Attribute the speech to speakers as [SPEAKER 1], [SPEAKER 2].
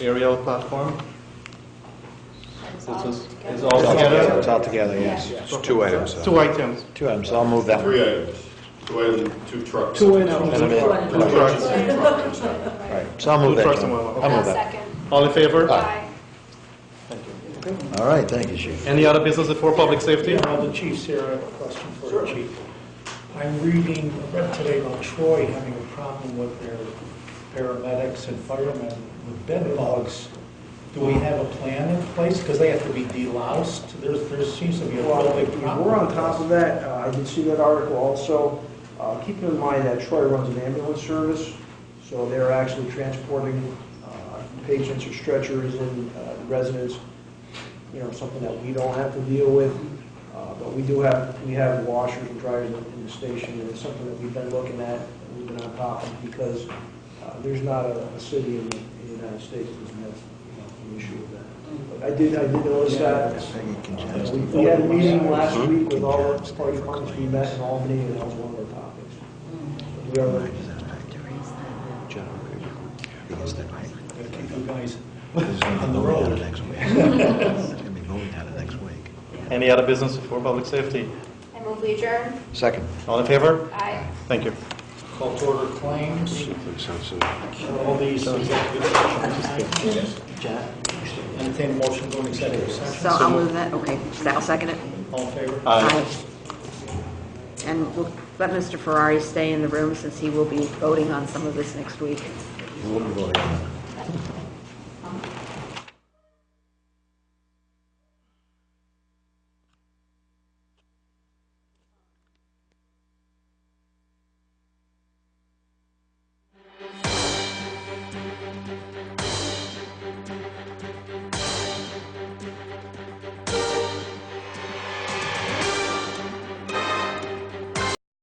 [SPEAKER 1] aerial platform?
[SPEAKER 2] It's
[SPEAKER 1] This
[SPEAKER 2] all
[SPEAKER 1] is,
[SPEAKER 2] together.
[SPEAKER 3] It's
[SPEAKER 1] is all together?
[SPEAKER 3] all together, yes.
[SPEAKER 4] It's two items.
[SPEAKER 1] Two items.
[SPEAKER 3] Two items, I'll move that.
[SPEAKER 5] Three items, two items, two trucks.
[SPEAKER 6] Two items.
[SPEAKER 3] And a minute.
[SPEAKER 5] Two trucks, one truck inside.
[SPEAKER 3] Right, so I'll move
[SPEAKER 1] Two
[SPEAKER 3] that.
[SPEAKER 1] trucks
[SPEAKER 3] John.
[SPEAKER 1] and one locker.
[SPEAKER 3] I'll
[SPEAKER 2] I'll
[SPEAKER 3] move that.
[SPEAKER 2] second.
[SPEAKER 1] All in favor?
[SPEAKER 2] Aye.
[SPEAKER 1] Thank you.
[SPEAKER 3] All right, thank you, chief.
[SPEAKER 1] Any other business before public safety?
[SPEAKER 6] Yeah, the chief's here, I have a question for the chief. I'm reading, I read today about Troy having a problem with their paramedics and firemen with bed bugs. Do we have a plan in place? Because they have to be deloused, there's, there seems to be a real
[SPEAKER 7] Well,
[SPEAKER 6] big problem.
[SPEAKER 7] We're on top of that, Uh, I did see that article also. Uh, Keep in mind that Troy runs an ambulance service, so they're actually transporting uh, patients or stretchers and uh, residents, you know, something that we don't have to deal with. Uh, But we do have, we have washers and dryers in in the station, and it's something that we've been looking at, and we've been on top of, because uh, there's not a a city in the in the United States that doesn't have you know, an issue with that. But I did, I did notice that. We we had a meeting last week with all the party partners, we met in Albany, and that was one of our topics. We are,
[SPEAKER 6] Gotta keep you guys-
[SPEAKER 4] On
[SPEAKER 6] the road.
[SPEAKER 4] It's gonna be voted out of next week.
[SPEAKER 1] Any other business before public safety?
[SPEAKER 2] I move we adjourn.
[SPEAKER 3] Second.
[SPEAKER 1] All in favor?
[SPEAKER 2] Aye.
[SPEAKER 1] Thank you.
[SPEAKER 6] Call to order claims,
[SPEAKER 4] Sounds so-
[SPEAKER 6] all these executive sessions. Entertain a motion going executive
[SPEAKER 8] So
[SPEAKER 6] session,
[SPEAKER 8] I'll move that, okay, So I'll second it.
[SPEAKER 6] all in favor?
[SPEAKER 1] Aye.
[SPEAKER 8] And we'll let Mr. Ferrari stay in the room since he will be voting on some of this next week.
[SPEAKER 3] We'll be voting on